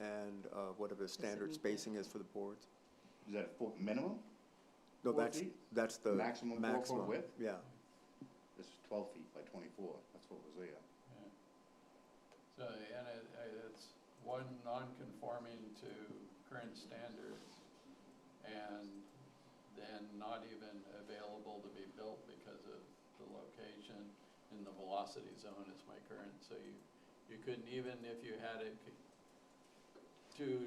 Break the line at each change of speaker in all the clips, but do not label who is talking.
and uh, whatever the standard spacing is for the boards?
Is that a foot minimum?
No,
Four
that's,
feet?
that's the
Maximum
maximum.
four foot width?
Yeah,
This is twelve feet by twenty-four, that's what was there.
Yeah. So, and it, it's one non-conforming to current standards and then not even available to be built because of the location in the velocity zone is my current, so you, you couldn't even if you had it c- to,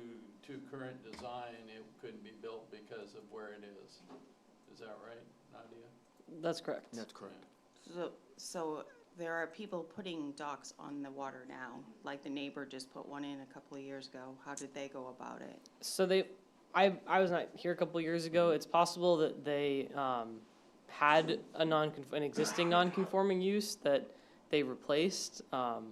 to current design, it couldn't be built because of where it is. Is that right, Nadia?
That's correct.
that's correct.
So, so there are people putting docks on the water now, like the neighbor just put one in a couple of years ago. How did they go about it?
So they, I, I was not here a couple years ago. It's possible that they um, had a non an existing non-conforming use that they replaced. Um,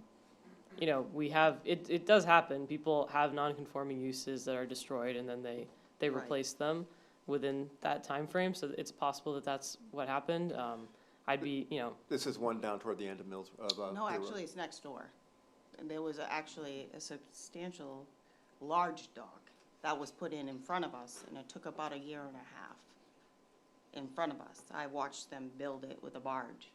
you know, we have it. It does happen. People have non-conforming uses that are destroyed, and then they they
Right.
replace them within that time frame. So it's possible that that's what happened. Um, I'd be, you know,
This is one down toward the end of Mills, of. uh,
No,
Bay Road.
actually, it's next door. And there was a- actually a substantial, large dock that was put in in front of us, and it took about a year and a half in front of us. I watched them build it with a barge.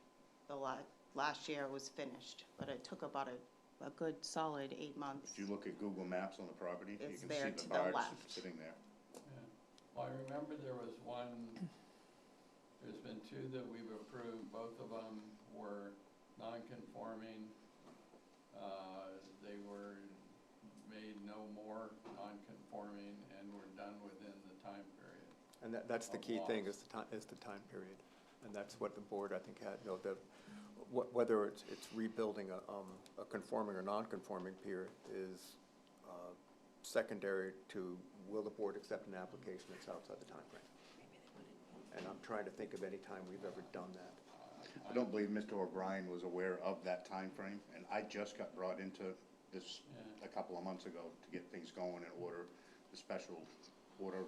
The la- last year it was finished, but it took about a, a good solid eight months.
If you look at Google Maps on the property, you
It's
can
there
see
to
the
the
barge
left.
sitting there.
Yeah. Well, I remember there was one, there's been two that we've approved, both of them were non-conforming. Uh, They were made no more non-conforming and were done within the time period.
And that, that's the key thing, is the time, is the time period. And that's what the board, I think, had, you know, the, wh- whether it's, it's rebuilding a, um, a conforming or non-conforming pier is, uh, secondary to will the board accept an application that's outside the time frame. And I'm trying to think of any time we've ever done that.
I don't believe Mr. O'Brien was aware of that time frame, and I just got brought into this
Yeah.
a couple of months ago to get things going and order the special order,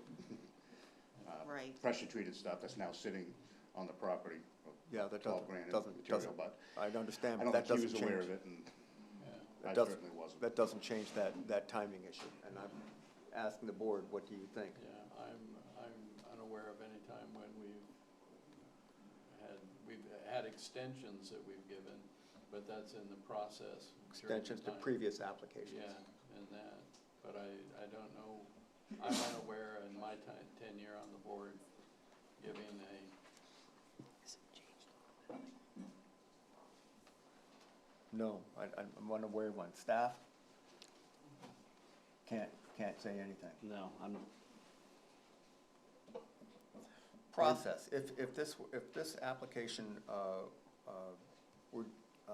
uh,
Right.
pressure-treated stuff that's now sitting on the property. of
Yeah, that
12 grand
doesn't,
in
doesn't,
material,
doesn't,
but
I understand, but
I don't
that
think he
doesn't
was
change.
aware of it, and
Yeah.
I
That doesn't-
certainly wasn't.
That doesn't change that, that timing issue. And I'm asking the board, what do you think?
Yeah, I'm, I'm unaware of any time when we've had, we've had extensions that we've given, but that's in the process. during the
Extensions to
time.
previous applications.
Yeah, and that, but I, I don't know, I'm unaware in my ti- tenure on the board, giving a,
No, I, I'm I'm unaware of one. Staff? Can't, can't say anything.
No, I'm,
Process, if, if this, if this application, uh, uh, were, uh,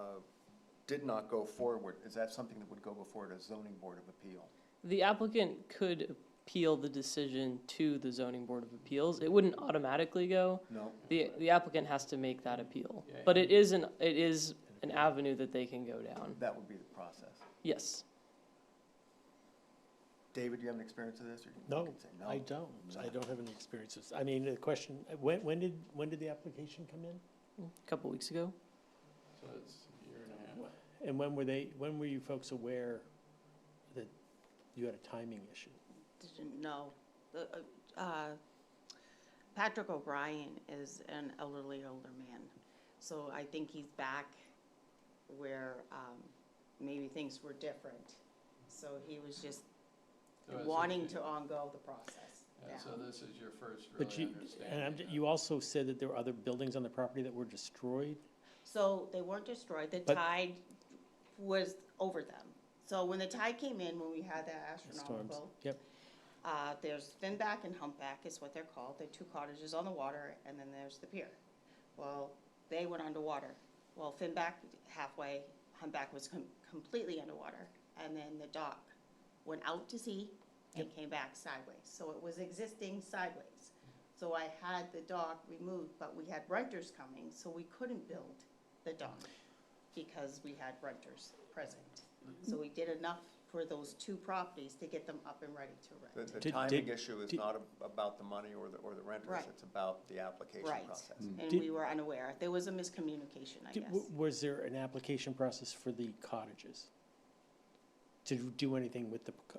did not go forward, is that something that would go before the zoning board of appeal?
the applicant could appeal the decision to the zoning board of appeals. It wouldn't automatically go.
No?
The, the applicant has to make that appeal,
Yeah.
but it is an, it is an avenue that they can go down,
That would be the process.
yes.
David, do you have an experience of this? or you
No,
can say
I don't. I don't have any experiences. I mean, the question, when, when did, when did the application come in?
A Couple weeks ago,
so it's a year and a half.
And when were they, when were you folks aware that you had a timing issue?
didn't know. The, uh, uh, Patrick O'Brien is an elderly older man, so I think he's back where um, maybe things were different. So he was just
Oh, So it's a-
wanting to ongo the process
Yeah, so
now.
this is your first
But
really
you, and I'm,
understanding.
you also said that there were other buildings on the property that were destroyed?
So they weren't destroyed, the
But-
tide was over them. So when the tide came in, when we had that
Storms.
astronomical,
Yep,
Uh, there's Finback and Humpback is what they're called. They're two cottages on the water, and then there's the pier. Well, they went underwater. Well, Finback halfway, Humpback was com- completely underwater, and then the dock went out to sea and came back sideways. So it was existing sideways. So I had the dock removed, but we had renters coming, so we couldn't build the dock because we had renters present. So we did enough for those two properties to get them up and ready to rent.
The, the
Did-
timing
did-
issue is
did-
not a- about the money or the, or the renters,
Right.
it's about the application
Right,
process.
and
Mm. Did-
we were unaware. There was a miscommunication, I
Did-
guess.
w- Was there an application process for the cottages? To do anything with the, co-